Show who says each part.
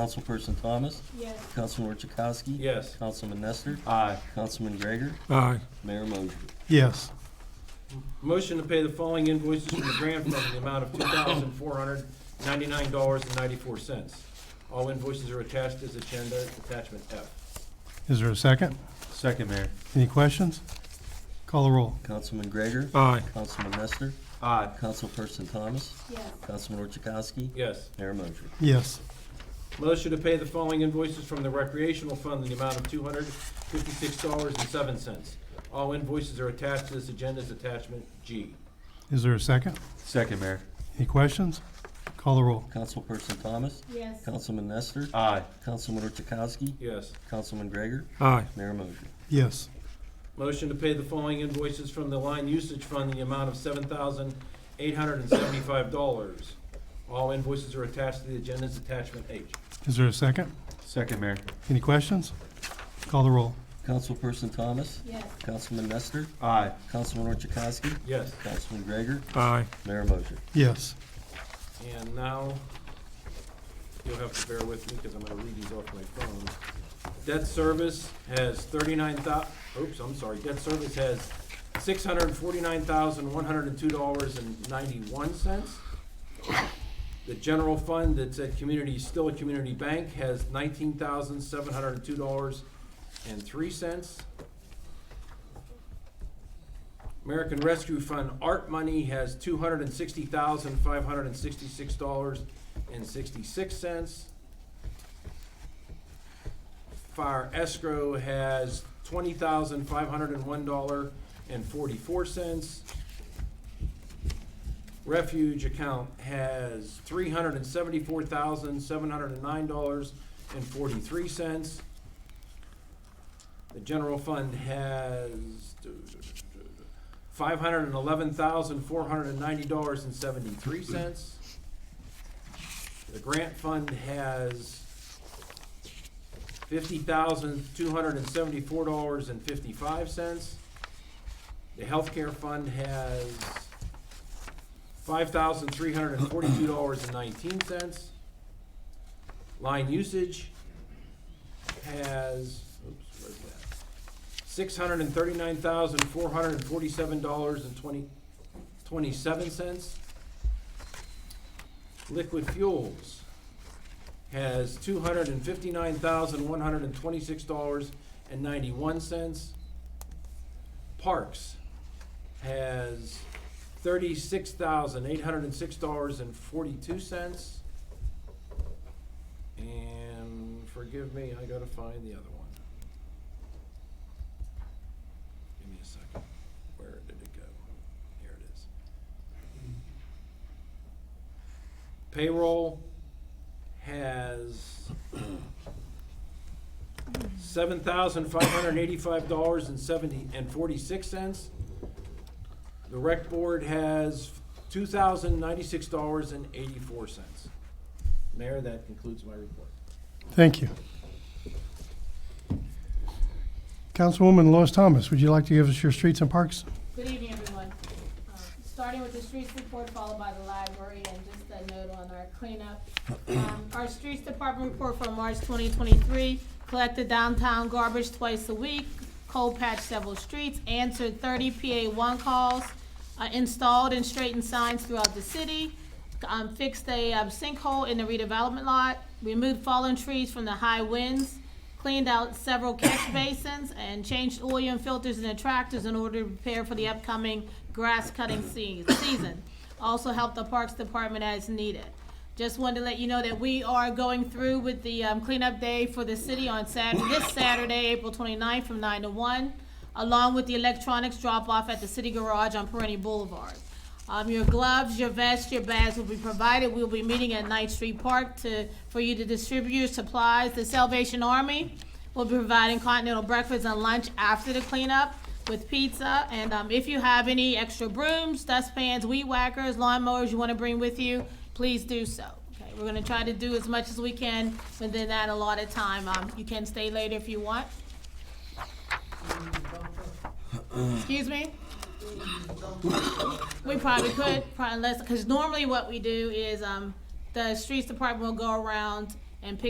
Speaker 1: Councilperson Thomas,
Speaker 2: Yes.
Speaker 1: Councilman Orchakowski.
Speaker 3: Yes.
Speaker 1: Councilman Nestor,
Speaker 3: Aye.
Speaker 1: Councilman Gregor,
Speaker 4: Aye.
Speaker 1: Mayor Mosher.
Speaker 4: Yes.
Speaker 3: Motion to pay the following invoices from the grant fund in the amount of two thousand four hundred ninety-nine dollars and ninety-four cents. All invoices are attached as agenda attachment F.
Speaker 4: Is there a second?
Speaker 5: Second, Mayor.
Speaker 4: Any questions? Call the roll.
Speaker 1: Councilman Gregor,
Speaker 4: Aye.
Speaker 1: Councilman Nestor,
Speaker 5: Aye.
Speaker 1: Councilperson Thomas,
Speaker 2: Yes.
Speaker 1: Councilman Orchakowski,
Speaker 3: Yes.
Speaker 1: Mayor Mosher.
Speaker 4: Yes.
Speaker 3: Motion to pay the following invoices from the recreational fund in the amount of two hundred fifty-six dollars and seven cents. All invoices are attached to this agenda as attachment G.
Speaker 4: Is there a second?
Speaker 5: Second, Mayor.
Speaker 4: Any questions? Call the roll.
Speaker 1: Councilperson Thomas,
Speaker 2: Yes.
Speaker 1: Councilman Nestor,
Speaker 5: Aye.
Speaker 1: Councilman Orchakowski,
Speaker 3: Yes.
Speaker 1: Councilman Gregor,
Speaker 4: Aye.
Speaker 1: Mayor Mosher.
Speaker 4: Yes.
Speaker 3: Motion to pay the following invoices from the line usage fund in the amount of seven thousand eight hundred and seventy-five dollars. All invoices are attached to the agenda as attachment H.
Speaker 4: Is there a second?
Speaker 5: Second, Mayor.
Speaker 4: Any questions? Call the roll.
Speaker 1: Councilperson Thomas,
Speaker 2: Yes.
Speaker 1: Councilman Nestor,
Speaker 5: Aye.
Speaker 1: Councilman Orchakowski,
Speaker 3: Yes.
Speaker 1: Councilman Gregor,
Speaker 4: Aye.
Speaker 1: Mayor Mosher.
Speaker 4: Yes.
Speaker 3: And now, you'll have to bear with me because I'm gonna read these off my phone. Debt service has thirty-nine thou, oops, I'm sorry, debt service has six hundred and forty-nine thousand, one hundred and two dollars and ninety-one cents. The general fund that's at community, still a community bank, has nineteen thousand, seven hundred and two dollars and three cents. American Rescue Fund art money has two hundred and sixty thousand, five hundred and sixty-six dollars and sixty-six cents. Fire escrow has twenty thousand, five hundred and one dollar and forty-four cents. Refuge account has three hundred and seventy-four thousand, seven hundred and nine dollars and forty-three cents. The general fund has five hundred and eleven thousand, four hundred and ninety dollars and seventy-three cents. The grant fund has fifty thousand, two hundred and seventy-four dollars and fifty-five cents. The healthcare fund has five thousand, three hundred and forty-two dollars and nineteen cents. Line usage has, oops, where's that? six hundred and thirty-nine thousand, four hundred and forty-seven dollars and twenty, twenty-seven cents. Liquid Fuels has two hundred and fifty-nine thousand, one hundred and twenty-six dollars and ninety-one cents. Parks has thirty-six thousand, eight hundred and six dollars and forty-two cents. And forgive me, I gotta find the other one. Give me a second. Where did it go? Here it is. Payroll has seven thousand five hundred eighty-five dollars and seventy, and forty-six cents. The rec board has two thousand ninety-six dollars and eighty-four cents. Mayor, that concludes my report.
Speaker 4: Thank you. Councilwoman Lois Thomas, would you like to give us your streets and parks?
Speaker 2: Good evening, everyone. Uh, Starting with the streets report followed by the library and just a note on our cleanup. Um, Our streets department report for March twenty twenty-three, collected downtown garbage twice a week, cold patched several streets, answered thirty PA one calls, uh, installed and straightened signs throughout the city, um, fixed a um, sinkhole in the redevelopment lot, removed fallen trees from the high winds, cleaned out several catch basins and changed oil and filters in the tractors in order to prepare for the upcoming grass cutting se- season. Also helped the Parks Department as needed. Just wanted to let you know that we are going through with the um, cleanup day for the city on Saturday, this Saturday, April 29th, from nine to one, along with the electronics drop-off at the city garage on Perini Boulevard. Um, your gloves, your vests, your bags will be provided. We'll be meeting at Knight Street Park to, for you to distribute your supplies. The Salvation Army will be providing continental breakfast and lunch after the cleanup with pizza. And, um, if you have any extra brooms, dustpans, weed whackers, lawnmowers you wanna bring with you, please do so. Okay, we're gonna try to do as much as we can within that allotted time. Um, you can stay later if you want. Excuse me? We probably could, probably less, because normally what we do is, um, the streets department will go around and pick